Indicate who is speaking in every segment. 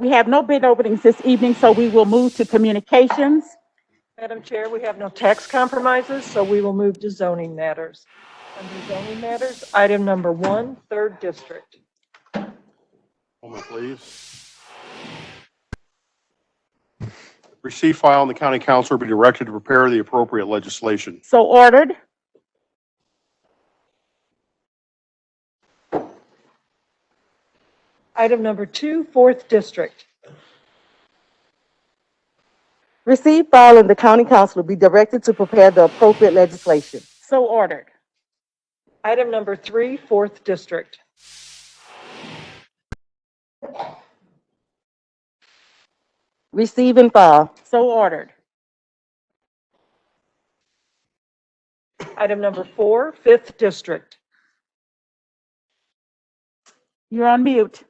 Speaker 1: We have no bid openings this evening, so we will move to communications.
Speaker 2: Madam Chair, we have no tax compromises, so we will move to zoning matters. Under zoning matters, item number one, third district.
Speaker 3: Moment, please. Receive file and the county council will be directed to prepare the appropriate legislation.
Speaker 1: So ordered.
Speaker 2: Item number two, fourth district.
Speaker 4: Receive, file, and the county council will be directed to prepare the appropriate legislation.
Speaker 1: So ordered.
Speaker 2: Item number three, fourth district.
Speaker 4: Receive and file.
Speaker 1: So ordered.
Speaker 2: Item number four, fifth district.
Speaker 1: You're on mute.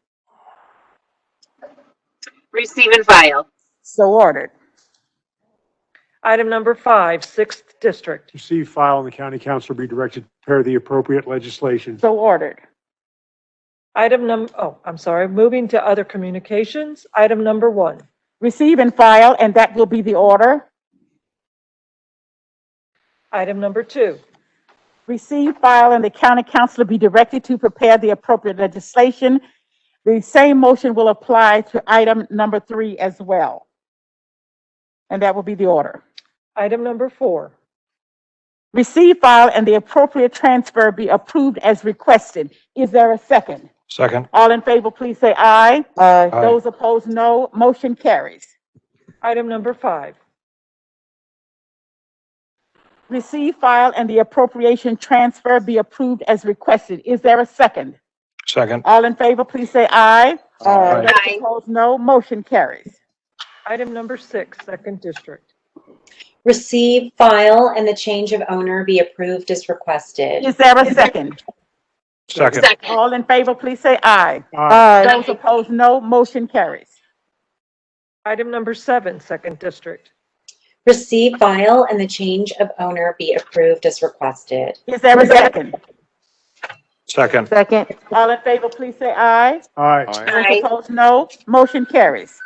Speaker 5: Receive and file.
Speaker 1: So ordered.
Speaker 2: Item number five, sixth district.
Speaker 6: Receive, file, and the county council will be directed to prepare the appropriate legislation.
Speaker 1: So ordered.
Speaker 2: Item num, oh, I'm sorry, moving to other communications. Item number one.
Speaker 1: Receive and file, and that will be the order.
Speaker 2: Item number two.
Speaker 1: Receive, file, and the county council will be directed to prepare the appropriate legislation. The same motion will apply to item number three as well. And that will be the order.
Speaker 2: Item number four.
Speaker 1: Receive, file, and the appropriate transfer be approved as requested. Is there a second?
Speaker 7: Second.
Speaker 1: All in favor, please say aye.
Speaker 4: Aye.
Speaker 7: Aye.
Speaker 1: Those opposed, no. Motion carries.
Speaker 2: Item number five.
Speaker 1: Receive, file, and the appropriation transfer be approved as requested. Is there a second?
Speaker 7: Second.
Speaker 1: All in favor, please say aye.
Speaker 4: Aye.
Speaker 1: Those
Speaker 5: Aye.
Speaker 1: opposed, no. Motion carries.
Speaker 2: Item number six, second district.
Speaker 8: Receive, file, and the change of owner be approved as requested.
Speaker 1: Is there a second?
Speaker 7: Second.
Speaker 5: Second.
Speaker 1: All in favor, please say aye.
Speaker 6: Aye.
Speaker 4: Aye.
Speaker 1: Those opposed, no. Motion carries.
Speaker 2: Item number seven, second district.
Speaker 8: Receive, file, and the change of owner be approved as requested.
Speaker 1: Is there a second?
Speaker 7: Second.
Speaker 4: Second.
Speaker 1: All in favor, please say aye.
Speaker 6: Aye.
Speaker 3: Aye.
Speaker 1: Those
Speaker 5: Aye.
Speaker 1: opposed, no. Motion carries.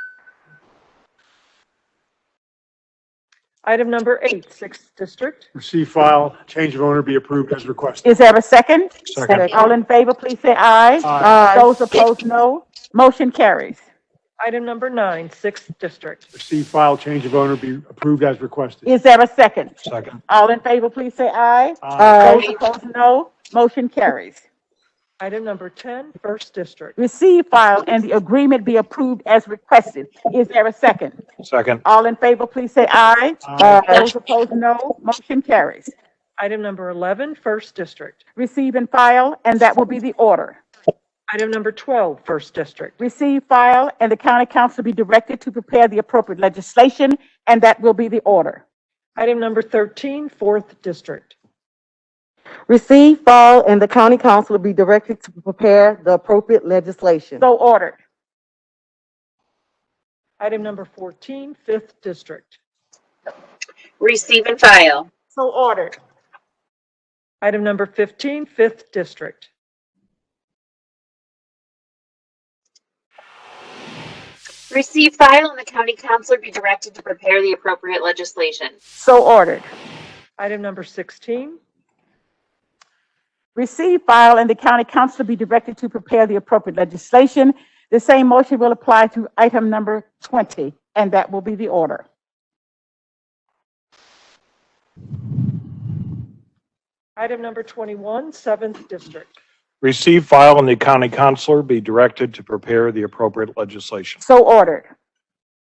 Speaker 2: Item number eight, sixth district.
Speaker 6: Receive, file, change of owner be approved as requested.
Speaker 1: Is there a second?
Speaker 7: Second.
Speaker 1: All in favor, please say aye.
Speaker 6: Aye.
Speaker 4: uh,
Speaker 1: Those opposed, no. Motion carries.
Speaker 2: Item number nine, sixth district.
Speaker 6: Receive, file, change of owner be approved as requested.
Speaker 1: Is there a second?
Speaker 7: Second.
Speaker 1: All in favor, please say aye.
Speaker 6: Aye.
Speaker 4: uh,
Speaker 1: Those opposed, no. Motion carries.
Speaker 2: Item number 10, first district.
Speaker 1: Receive, file, and the agreement be approved as requested. Is there a second?
Speaker 7: Second.
Speaker 1: All in favor, please say aye.
Speaker 6: Aye.
Speaker 1: Those opposed, no. Motion carries.
Speaker 2: Item number 11, first district.
Speaker 1: Receive and file, and that will be the order.
Speaker 2: Item number 12, first district.
Speaker 1: Receive, file, and the county council be directed to prepare the appropriate legislation, and that will be the order.
Speaker 2: Item number 13, fourth district.
Speaker 4: Receive, file, and the county council will be directed to prepare the appropriate legislation.
Speaker 1: So ordered.
Speaker 2: Item number 14, fifth district.
Speaker 5: Receive and file.
Speaker 1: So ordered.
Speaker 2: Item number 15, fifth district.
Speaker 5: Receive, file, and the county council be directed to prepare the appropriate legislation.
Speaker 1: So ordered.
Speaker 2: Item number 16,
Speaker 1: Receive, file, and the county council be directed to prepare the appropriate legislation. The same motion will apply to item number 20, and that will be the order.
Speaker 2: item number 21, seventh district.
Speaker 7: Receive, file, and the county councilor be directed to prepare the appropriate legislation.
Speaker 1: So ordered.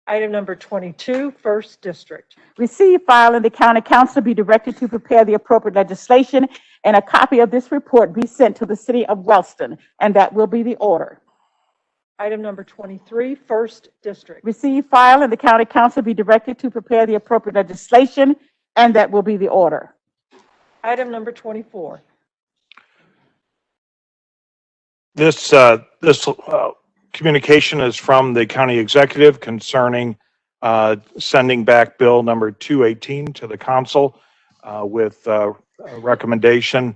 Speaker 2: Item number 22, first district.
Speaker 1: Receive, file, and the county council be directed to prepare the appropriate legislation, and a copy of this report be sent to the city of Wellston, and that will be the order.
Speaker 2: Item number 23, first district.
Speaker 1: Receive, file, and the county council be directed to prepare the appropriate legislation, and that will be the order.
Speaker 2: Item number 24.
Speaker 7: This, uh, this, uh, communication is from the county executive concerning, uh, sending back bill number 218 to the council, uh, with, uh, a recommendation